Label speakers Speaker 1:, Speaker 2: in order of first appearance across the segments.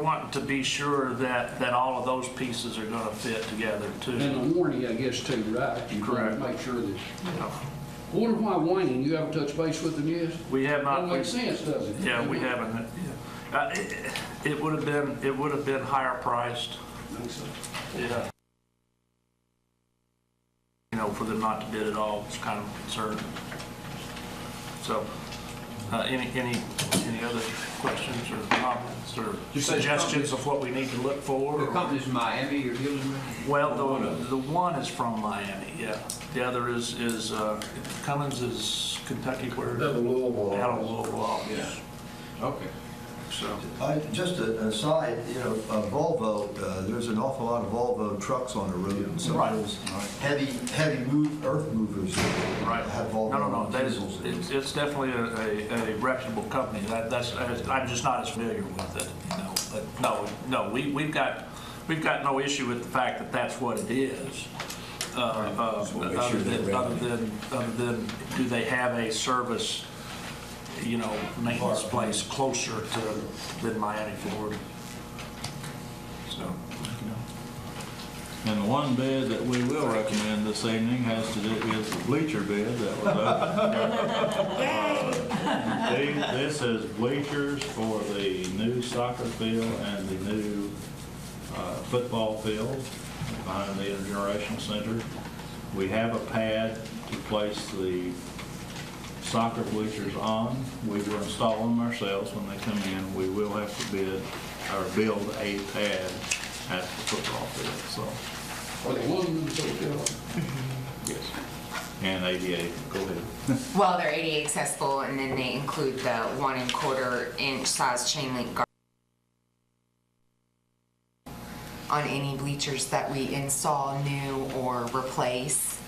Speaker 1: want to be sure that, that all of those pieces are gonna fit together
Speaker 2: Mm-hmm.
Speaker 1: too.
Speaker 3: And the warranty, I guess, too, right? You
Speaker 1: Correct.
Speaker 3: can Make sure that, I wonder why Wayne, you haven't touched base with them yet?
Speaker 1: We have not.
Speaker 3: Don't make sense, does it?
Speaker 1: Yeah, we haven't. yeah. Uh, it- It would have been, it would have been higher priced,
Speaker 3: Makes sense.
Speaker 1: yeah. You know, for them not to bid at all, it's kind of a concern. So, uh, any, any, any other questions or comments or
Speaker 4: You say the
Speaker 1: suggestions of what we need to look for?
Speaker 4: The
Speaker 1: or-
Speaker 4: company's in Miami you're dealing with?
Speaker 1: Well, the, the one is from Miami, yeah. The other is, is, uh, Cummins is Kentucky, where?
Speaker 5: Out of Louisville.
Speaker 1: Out of Louisville, office.
Speaker 4: Okay.
Speaker 1: so.
Speaker 6: I, Uh, just a- an aside, you know, uh, Volvo, uh, there's an awful lot of Volvo trucks on the road, and some
Speaker 1: Right.
Speaker 6: of those heavy, heavy move, earth movers
Speaker 1: Right.
Speaker 6: have Volvo.
Speaker 1: No, no, no, that is,
Speaker 6: diesels in them.
Speaker 1: it's, it's definitely a, a- a reputable company. That, that's, I'm just not as familiar with it, you know, but no, no, we, we've got, we've got no issue with the fact that that's what it is. Uh, uh,
Speaker 2: wanna make sure
Speaker 1: Other than,
Speaker 2: they're
Speaker 1: other than, other than, do they have a service, you know, maintenance place closer to, than Miami, Florida? So,
Speaker 7: And the one bid that we will recommend this evening has to do with the bleacher bid that was open. Uh, the- This is bleachers for the new soccer field and the new uh, football field behind the intergenerational center. We have a pad to place the soccer bleachers on. We will install them ourselves when they come in. We will have to bid, or build a pad at the football field, so.
Speaker 3: Are they aluminum, so it's-
Speaker 7: Yes. And ADA, go ahead.
Speaker 8: Well, they're ADA accessible, and then they include the one and quarter inch size chain link guard on any bleachers that we install new or replace.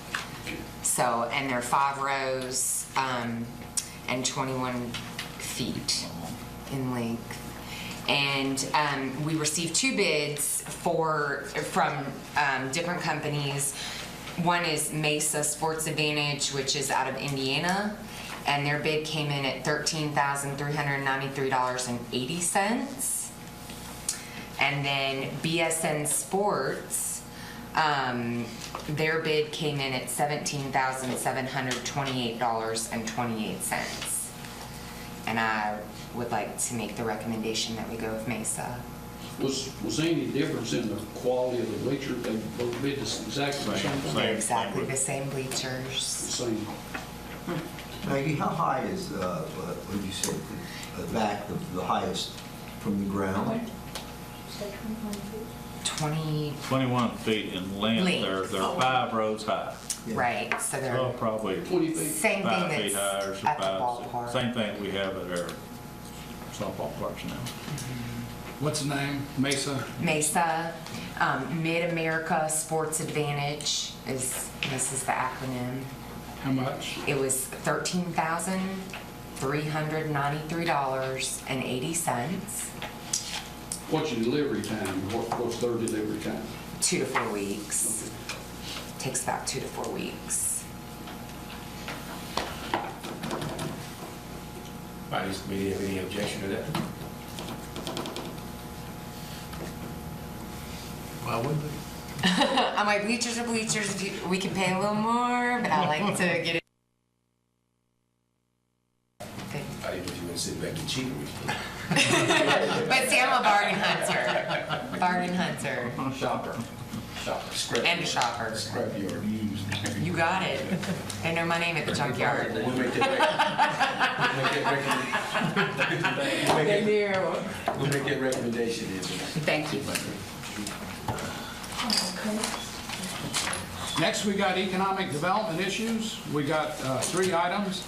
Speaker 8: So, and they're five rows um, and 21 feet in length. And um, we received two bids for, from um, different companies. One is Mesa Sports Advantage, which is out of Indiana, and their bid came in at $13,393.80. And then BSN Sports, um, their bid came in at $17,728.28. And I would like to make the recommendation that we go with Mesa.
Speaker 3: Was, was any difference in the quality of the bleacher? They both bid the s- exactly the same
Speaker 7: Same,
Speaker 3: thing?
Speaker 7: same.
Speaker 8: They're exactly the same bleachers.
Speaker 3: Same.
Speaker 6: Maggie, how high is, uh, what would you say, the- the back, the- the highest from the ground?
Speaker 8: 20,
Speaker 7: 21 feet in length, they're, they're five rows high.
Speaker 6: Yeah.
Speaker 8: right, so
Speaker 7: Well,
Speaker 8: they're
Speaker 7: probably
Speaker 3: Twenty feet?
Speaker 8: same
Speaker 7: five
Speaker 8: thing
Speaker 7: feet high or
Speaker 8: that's at the
Speaker 7: five,
Speaker 8: ballpark.
Speaker 7: six- same thing we have at our softball parks now.
Speaker 2: What's the name? Mesa?
Speaker 8: Mesa, um, Mid-America Sports Advantage is, this is the acronym.
Speaker 2: How much?
Speaker 8: It was thirteen thousand, three hundred ninety-three dollars and eighty cents,
Speaker 3: What's your delivery time? What, what's their delivery time?
Speaker 8: two to four weeks. Takes about two to four weeks.
Speaker 4: Anybody have any objection to that?
Speaker 5: Why wouldn't they?
Speaker 8: I'm like, bleachers are bleachers, if you- we can pay a little more, but I like to get it. Okay.
Speaker 4: I didn't know if you were sitting back and cheating with me.
Speaker 8: But see, I'm a bargain hunter, bargain hunter,
Speaker 4: Shopper. Shopper. Scrap
Speaker 8: and a
Speaker 4: yard.
Speaker 8: shopper.
Speaker 4: Scrap yard.
Speaker 8: You got it. They know my name at the junkyard.
Speaker 4: We'll make that rec- we'll make that
Speaker 8: They
Speaker 4: recommendation.
Speaker 8: do.
Speaker 4: We'll make that recommendation in tonight.
Speaker 8: Thank you.
Speaker 2: Next, we got economic development issues. We got uh, three items.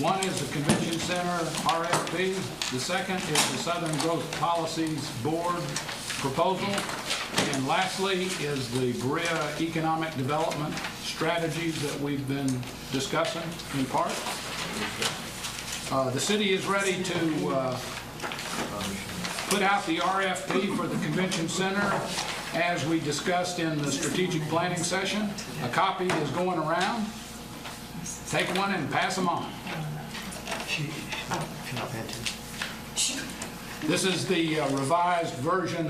Speaker 2: One is the Convention Center RFP. The second is the Southern Growth Policies Board proposal. And lastly is the Berea Economic Development strategies that we've been discussing in part. Uh, The city is ready to uh, put out the RFP for the convention center as we discussed in the strategic planning session. A copy is going around. Take one and pass them on. This is the uh, revised version